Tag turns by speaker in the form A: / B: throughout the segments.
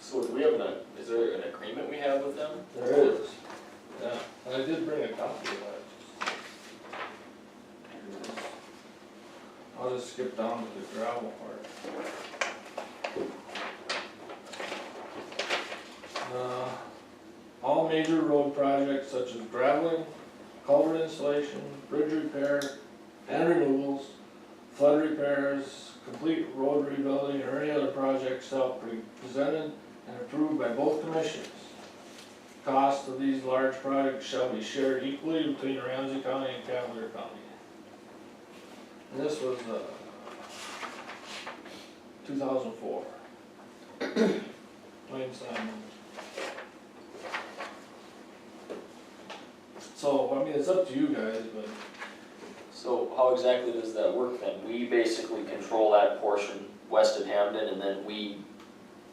A: So do we have an, is there an agreement we have with them?
B: There is,
A: Yeah.
B: and I did bring a copy of that. I'll just skip down to the gravel part. Uh, All major road projects such as graveling, culvert installation, bridge repair, and removals, flood repairs, complete road rebuilding, or any other projects shall be presented and approved by both commissions. Cost of these large projects shall be shared equally between Ramsey County and Cavalier County. And this was, uh, two thousand four. Plain Simon. So, I mean, it's up to you guys, but
A: So how exactly does that work then? We basically control that portion west of Hamden and then we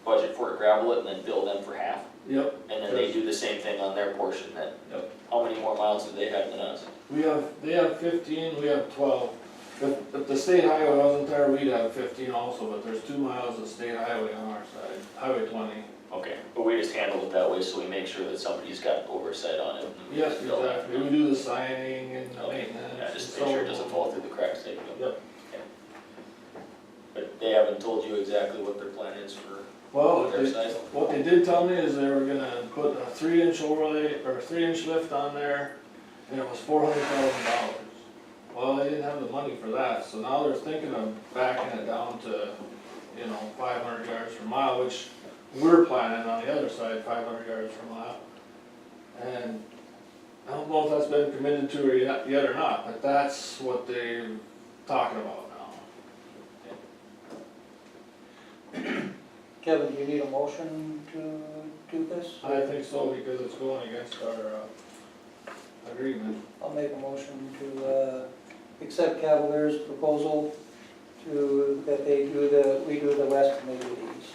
A: budget for it, gravel it, and then bill them for half?
B: Yep,
A: And then they do the same thing on their portion then?
B: Yep.
A: How many more miles do they have than us?
B: we have, they have fifteen, we have twelve. If, if the state highway wasn't there, we'd have fifteen also, but there's two miles of state highway on our side, Highway twenty.
A: Okay, but we just handle it that way, so we make sure that somebody's got oversight on it.
B: Yes, exactly, we do the signing and the
A: Okay,
B: maintenance.
A: yeah, just
B: and
A: make sure it
B: so
A: doesn't
B: on.
A: fall through the cracks, they, know.
B: Yep,
A: but they haven't told you exactly what their plan is for
B: well,
A: their
B: they-
A: size?
B: what they did tell me is they were gonna put a three inch overlay, or a three inch lift on there, and it was four hundred thousand dollars. Well, they didn't have the money for that, so now they're thinking of backing it down to, you know, five hundred yards per mile, which we're planning on the other side, five hundred yards per mile. And I don't know if that's been committed to or yet, yet or not, but that's what they're talking about now.
C: Kevin, do you need a motion to do this?
B: I think so, because it's going against our uh, agreement.
C: I'll make a motion to uh, accept Cavalier's proposal to, that they do the, we do the west and they do the east.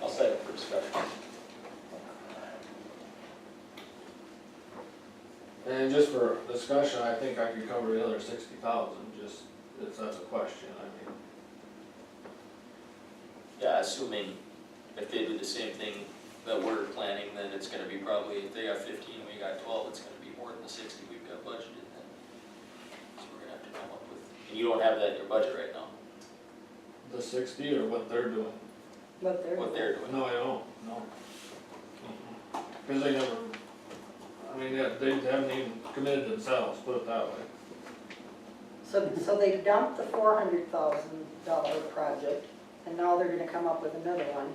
A: I'll set it for discussion.
B: And just for discussion, I think I could cover the other sixty thousand, just if that's a question, I mean.
A: Yeah, assuming if they do the same thing that we're planning, then it's gonna be probably, if they got fifteen, we got twelve, it's gonna be more than the sixty we've got budgeted then. So we're gonna have to come up with, and you don't have that in your budget right now,
B: The sixty or what they're doing?
C: But there.
A: what they're doing.
B: No, I don't, no. Because they never, I mean, they- they haven't even committed themselves, put it that way.
D: So, so they dumped the four hundred thousand dollar project, and now they're gonna come up with another one.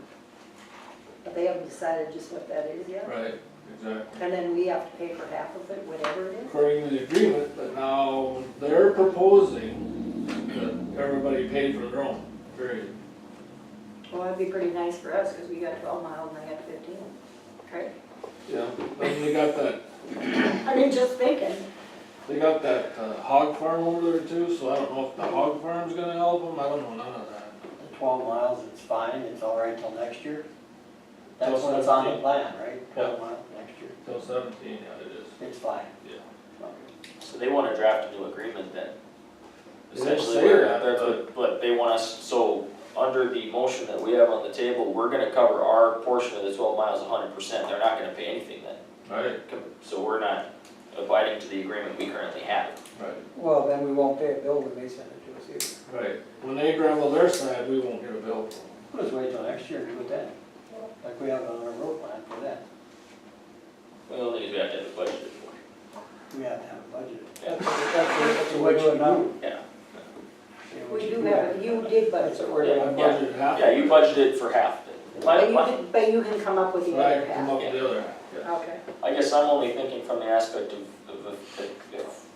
D: But they haven't decided just what that is yet,
B: Right. Exactly.
D: and then we have to pay for half of it, whatever it is.
B: According to the agreement, but now they're proposing that everybody paid for their own, period.
D: Well, that'd be pretty nice for us, cause we got twelve miles and I got fifteen, right?
B: Yeah, then they got that,
D: I mean, just thinking,
B: they got that uh, hog farm over there too, so I don't know if the hog farm's gonna help them, I don't know none of that.
E: The Twelve miles, it's fine, it's all right till next year. That's
B: Till
E: when it's on
B: 17.
E: the plan, right? Twelve
B: Yeah.
E: miles next year,
B: Till seventeen, yeah, it is,
E: it's fine.
B: yeah.
A: So they wanna draft a new agreement then.
B: They didn't
A: Essentially,
B: say
A: we're-
B: that,
A: that's what- but they want us, so under the motion that we have on the table, we're gonna cover our portion of the twelve miles hundred percent, they're not gonna pay anything then.
B: Right,
A: So we're not abiding to the agreement we currently have.
B: right,
C: Well, then we won't pay a bill when they send it to us either.
B: right. When they gravel their side, we won't get a bill for them.
E: Let's wait till next year, and do it then. Like we have on our road plan for that.
A: We don't think we have to have a budget for it.
E: We have to have a budget.
C: That's, that's
E: So
C: what
E: what
C: we're
E: you
C: doing now.
E: do?
A: Yeah.
E: See what
D: we
E: you
D: do have, you
C: That's
D: did budget
C: what
D: for
C: we're
A: Yeah.
C: doing.
B: I budgeted half.
A: Yeah, you budgeted for half of it. My,
D: But you
A: my,
D: can, but you can come up with the other
B: Right, come
D: half.
B: up with the other, half, yeah.
D: Okay.
A: I guess I'm only thinking from the aspect of, of, of- if-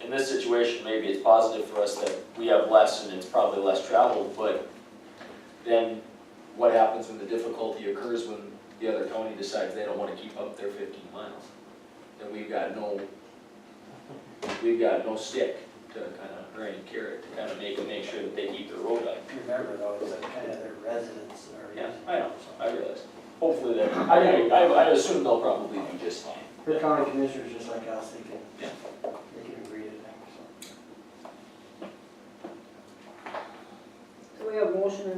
A: in this situation, maybe it's positive for us that we have less and it's probably less traveled, but then what happens when the difficulty occurs when the other county decides they don't wanna keep up their fifteen miles? Then we've got no, we've got no stick to kinda, or any carrot to kinda make, make sure that they keep their road up.
E: Remember though, it's like kind of their residents or.
A: Yeah, I know, I realize. Hopefully that, I, I, I assume they'll probably do just fine.
E: Her county commissioners, just like us, they can,
A: Yeah.
E: they can agree to that, so.
D: So we have motion and